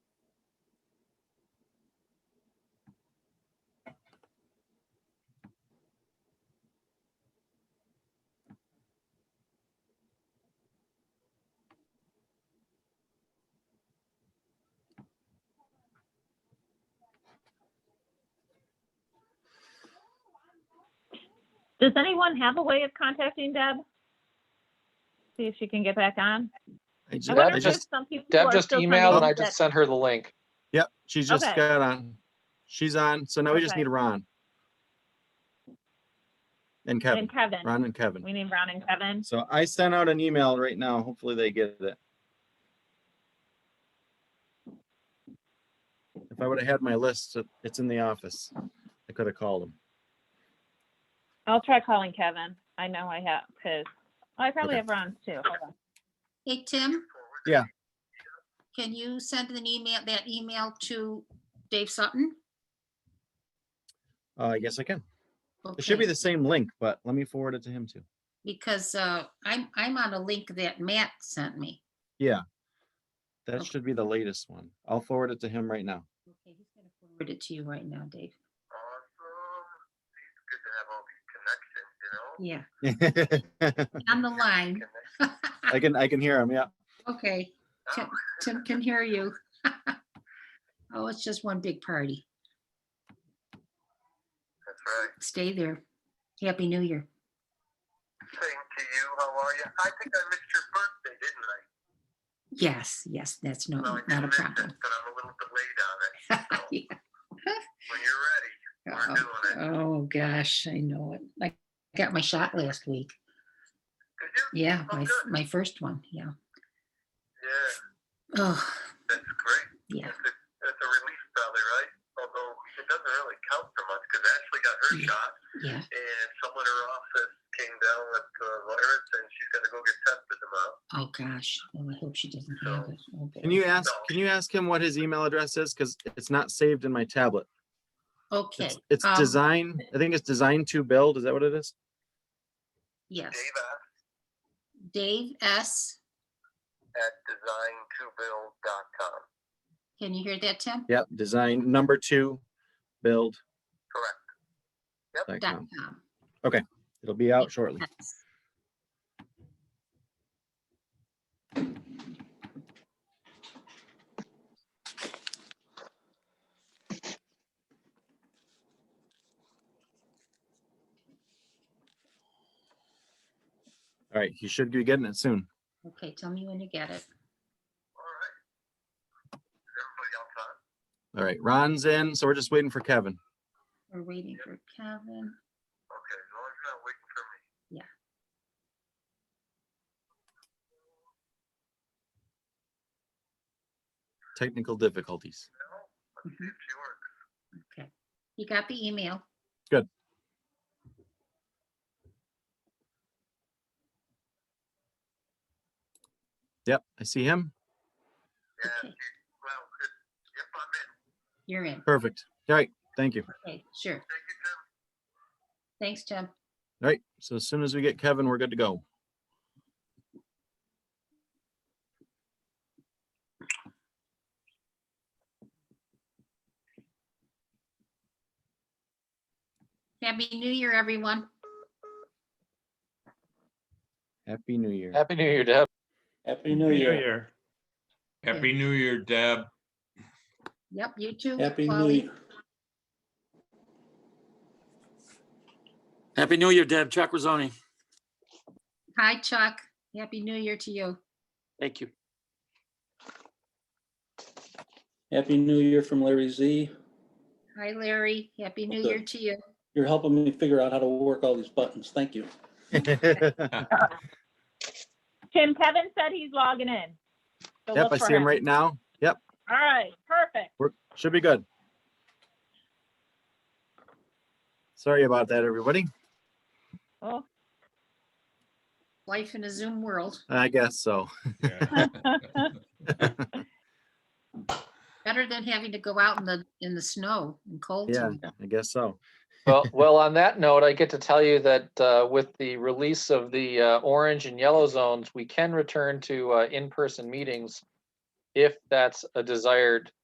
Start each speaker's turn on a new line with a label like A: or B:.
A: Does anyone have a way of contacting Deb? See if she can get back on?
B: I
A: I
B: ju-
A: wonder
B: I
A: if there's
B: just-
A: some people who
C: Deb
A: are
C: just
A: still trying to
C: emailed and I
A: get
C: just sent her the link.
B: Yep, she's just
A: Okay.
B: got on. She's on, so now we just
A: Okay.
B: need Ron. And
A: that-
B: Kevin,
A: And Kevin,
B: Ron and Kevin.
A: we need Ron and Kevin.
B: So I sent out an email right now. Hopefully they get it. If I would have had my list, it- it's in the office. I could have called them.
A: I'll try calling Kevin. I know I have, because I probably
B: Okay.
A: have Ron's too. Hold on.
D: Hey, Tim?
B: Yeah.
D: Can you send an email, that email to Dave Sutton?
B: Uh, yes, I can. It should be
D: Okay,
B: the same link, but let me forward it to him too.
D: Because uh, I'm, I'm on a link that Matt sent me.
B: That
D: Okay.
B: should be the latest one. I'll forward it to him right now.
D: Okay, he's gonna Forward it to you right now, Dave.
E: Awesome. It's good to have all these connections, you know?
D: Yeah,
B: I
D: on the line.
B: can, I can hear him, yeah.
D: Okay, Tim, Tim can hear you. Oh, it's just one big party.
E: That's right.
D: Stay there. Happy New Year.
E: Same to you. How are you? I think I missed your birthday, didn't I?
D: Yes, yes, that's no,
E: No, I
D: not Oh, a
E: did miss it,
D: problem.
E: but I'm a little delayed on it. So
D: Yeah.
E: when you're ready, we're
D: Uh-oh.
E: doing it.
D: Oh, gosh, I know it. I got my shot last week.
E: Did you?
D: Yeah,
E: Oh,
D: my,
E: good.
D: my first one, yeah.
E: Yeah,
D: Oh,
E: that's great.
D: yeah,
E: That's a, that's a relief probably, right? Although it doesn't really count for much because Ashley got her
D: Yeah.
E: shot
D: yeah.
E: and someone in her office came down with the virus and she's gonna go get tested tomorrow.
D: Oh, gosh. Oh, I hope she doesn't have it. Oh,
B: Can
D: boy.
B: you ask, can you ask him what his email address is? Because it's not saved in my tablet.
D: Okay.
B: It's, it's
D: um,
B: design, I think it's design to build. Is that what it is?
D: Yes,
E: Dave asked
D: Dave S.
E: at designtobuild.com.
D: Can you hear that, Tim?
B: Yep, design number two, build.
E: Correct.
B: dot
D: Dot
B: com.
D: com.
B: It'll be out shortly.
D: Yes.
B: All right, he should be getting it soon.
D: Okay, tell me when you get it.
E: All right. Is everybody else on?
B: All right, Ron's in, so we're just waiting for Kevin.
D: We're waiting for Kevin.
E: Okay, as long as you're not waiting for me.
B: Technical difficulties.
E: No, let's see
D: Mhm.
E: if she works.
D: Okay. You got the email?
B: Good. Yep, I see him.
E: Yeah,
D: Okay.
E: she, well, it, yep, I'm in.
D: You're in.
B: Perfect. All right, thank you.
D: Okay, sure.
E: Thank you, Tim.
D: Thanks, Tim.
B: All right, so as soon as we get Kevin, we're good to go.
D: Happy New Year, everyone.
B: Happy New Year.
C: Happy New Year, Deb.
F: Happy New Year.
G: Happy New Year, Deb.
D: Yep, you too.
F: Happy New
D: Polly.
F: Year. Happy New Year, Deb. Chuck Rosoni.
D: Hi, Chuck. Happy New Year to you.
F: Thank you. Happy New Year from Larry Z.
D: Hi, Larry. Happy New
F: Okay.
D: Year to you.
F: You're helping me figure out how to work all these buttons. Thank you.
B: Yep,
A: Tim, Kevin said he's logging in. So look
B: I
A: for
B: see him right now. Yep,
A: All right, perfect.
B: we're, should be good. Sorry about that, everybody.
A: Oh,
D: Life in a Zoom world,
B: I guess so.
G: Yeah.
D: better than having to go out in the, in the snow and cold.
B: Yeah, I guess so.
C: Well, well, on that note, I get to tell you that uh, with the release of the uh, orange and yellow zones, we can return to uh, in-person meetings if that's a desired